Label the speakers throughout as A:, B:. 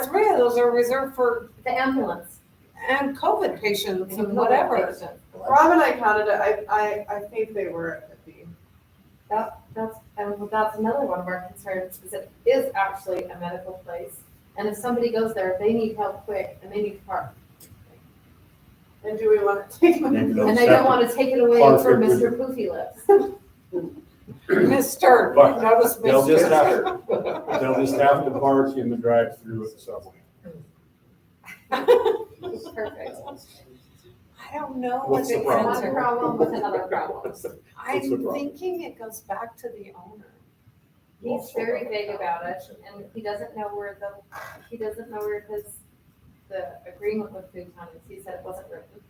A: Three of those are reserved for,
B: The ambulance.
A: and COVID patients and whatever.
C: Rob and I counted it, I, I, I think they were at fifty.
B: That, that's, and that's another one of our concerns, is it is actually a medical place. And if somebody goes there, they need help quick and they need to park.
C: And do we want to take
D: Maybe
C: them?
D: they'll
B: And I don't
D: separate.
B: want to take it away
D: Park
B: from
D: it with-
B: Mr. Poofy Lips.
A: Mister,
D: But
A: notice mister.
D: they'll just They'll just have to park in the drive-through at the subway.
B: Perfect.
A: I don't know what
D: What's
A: the
D: the problem?
B: One
A: answer.
B: problem with another problem.
D: What's the
A: I'm
D: problem?
A: thinking it goes back to the owner.
B: He's very vague about it and he doesn't know where the, he doesn't know where his, the agreement with Food Town is. He said it wasn't written.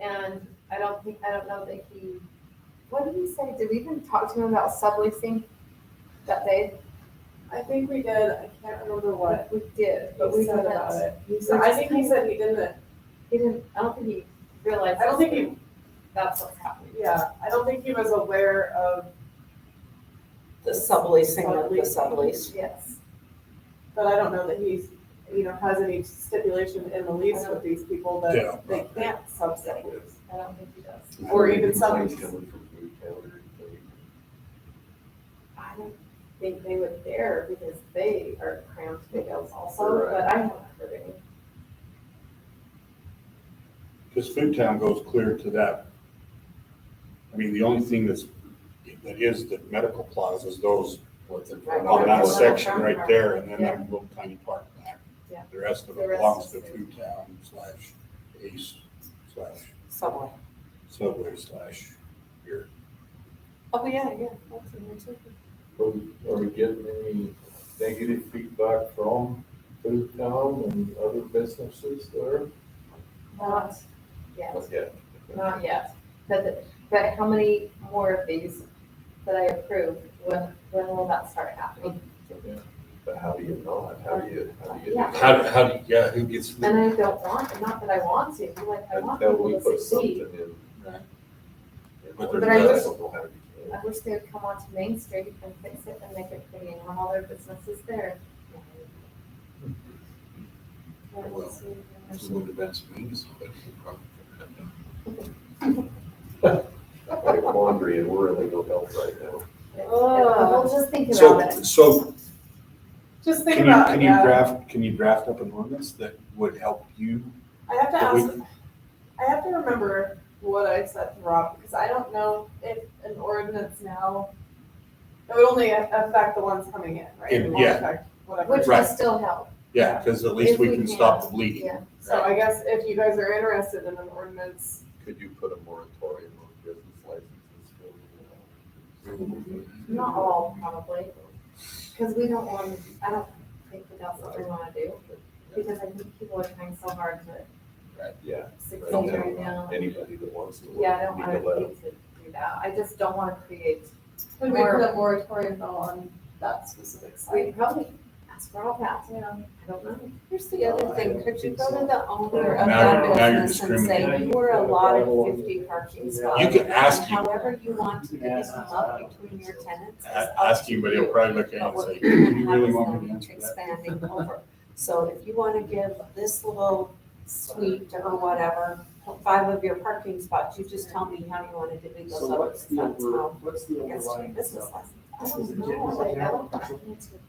B: And I don't think, I don't know that he, what did he say? Did we even talk to him about subleasing that day?
C: I think we did, I can't remember what
B: We did, but
C: he
B: we
C: said about
B: didn't,
C: it. He said, I think he said he didn't,
B: he didn't, I don't think he realized.
C: I don't think he,
B: That's what's happening.
C: yeah, I don't think he was aware of,
A: The subleasing of the sublease.
B: Yes.
C: but I don't know that he's, you know, has any stipulation in the lease with these people
D: Yeah.
C: that they can't subset lease.
B: I don't think he does.
C: Or even some-
E: Complaints coming from food counter and things.
B: I don't think they would dare because they are cramped big else also, but I haven't heard any.
D: Because Food Town goes clear to that. I mean, the only thing that's, that is the medical plaza is those,
E: What's it?
B: Right.
D: on that section right there, and then that little tiny park back.
B: Yeah.
D: The rest of
B: The
D: it
B: rest
D: belongs to
B: is-
D: Food Town slash Ace slash
A: Subway.
D: Subway slash here.
A: Oh, yeah, yeah. that's in there too.
E: Are we, are we getting any negative feedback from food town and other businesses there?
B: Not yet,
E: Yeah.
B: not yet. But, but how many more of these that I approve, when, when will that start happening?
E: But how do you not? How do you, how do you?
B: Yeah.
D: How, do- how do, you- yeah, who gets
B: And
D: the,
B: I don't want, not that I want to, like, I want
E: Until we
B: people to
E: put something
B: succeed.
E: in.
D: Right.
E: And
D: But
E: we're
B: they're
E: not
B: not-
E: gonna have it.
B: I wish they would come onto Main Street and fix it and make it pretty and have all their businesses there.
D: Well, there's a little bit of wings, but you probably couldn't have
E: Like laundry and we're in legal health right now.
B: Well, just think
D: done.
B: about
D: So,
B: it.
D: so
C: Just think
D: Can you,
C: about
D: can
C: it,
D: you
C: yeah.
D: draft, can you draft up an ordinance that would help you?
C: I have to
D: that we-
C: ask, I have to remember what I said to Rob, because I don't know if an ordinance now, it would only affect the ones coming in, right? It won't
D: Yeah.
C: affect Whatever.
B: Which will
D: Right.
B: still help,
D: Yeah, because at least
B: If
D: we
B: we
D: can
B: can.
D: stop the bleeding.
B: yeah.
C: So I guess if you guys are interested in an ordinance,
E: Could you put a moratorium on business licenses?
B: Not all, probably, because we don't want, I don't think that that's what we want to do, because I think people are trying so hard to
E: Yeah,
B: succeed
E: Don't have
B: right now.
E: anybody that wants to.
B: Yeah, I don't
E: need to let
B: want to
E: 'em.
B: hate to do that, I just don't want to create,
C: would we put a moratorium though on that specific
B: we
C: site?
B: probably ask for all that,
C: Yeah.
B: I don't know.
A: Here's the other thing, could you go to the owner of
D: Now
A: that
D: you're- now you're
A: business and say,
D: discriminating.
A: you were allotted fifty parking spots?
D: You can ask
A: and
D: him.
A: However you want to divvy them up between your tenants is up
D: Ask
A: to
D: him, but he'll
A: you.
D: probably look at it
A: But
D: and
A: we're
D: say, do you
A: gonna
D: really
A: have
D: want me to
A: them
D: answer that?
A: expanding over. So if you wanna give this little suite or whatever, five of your parking spots, you just tell me how you wanna divvy those
F: So
A: up.
F: what's the
A: That's
F: over,
A: how
F: what's the
A: it gets to your
F: overriding?
A: business license.
B: I don't know, like, I don't I need to-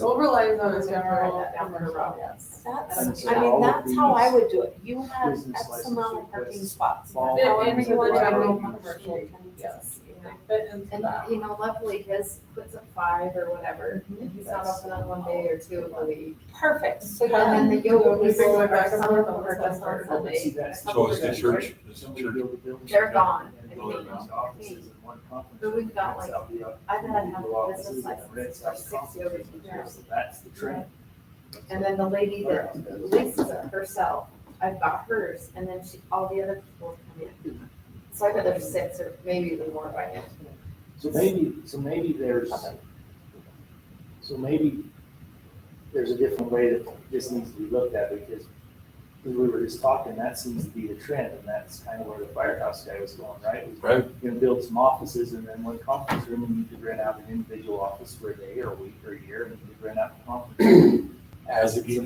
C: Overlay zone is
B: Write
C: general
B: that down for
C: commercial,
B: Rob.
C: yes.
F: And
A: That's,
F: so
A: I mean,
F: all of
A: that's how I
F: these
A: would do it. You have
F: business
A: X amount of
F: licenses
A: parking
F: that
A: spots.
F: fall
A: However
C: into
A: you want
C: the
A: to
C: general
A: do it.
C: commercial, yes.
B: you know.
C: Fit into
B: And,
C: that.
B: you know, luckily his puts at five or whatever, and he's not
C: That's-
B: open on one day or two of the week.
A: Perfect, so
B: And
A: then
B: then the yoga
C: We bring
B: people
C: them
B: are
C: back and
B: some
C: forth
B: of them
C: on
B: are
C: Sunday.
B: just on
F: I would see
B: Sunday.
F: that.
D: So is the church, is the
F: Somebody
D: church,
F: built a building
B: They're
F: shut down
B: gone.
F: and
B: And
F: built
B: they-
F: those offices in one conference
B: But we've got,
F: room.
B: like,
F: That's how the
B: I've had
F: people
B: half a
F: offices
B: business
F: and
B: license
F: rents
B: for
F: out
B: six yoga
F: conference rooms.
B: teachers.
F: So That's the trend.
B: And then the lady that leases it herself, I've got hers, and then she, all the other people come in. So I bet there's six or maybe even more by now.
F: So maybe, so maybe there's, so maybe there's a different way that this needs to be looked at because as we were just talking, that seems to be the trend and that's kind of where the firehouse guy was going, right? Was
D: right?
F: You're gonna build some offices and then one conference room and you could rent out an individual office for a day or a week or a year and you could rent out a conference room.
D: As if you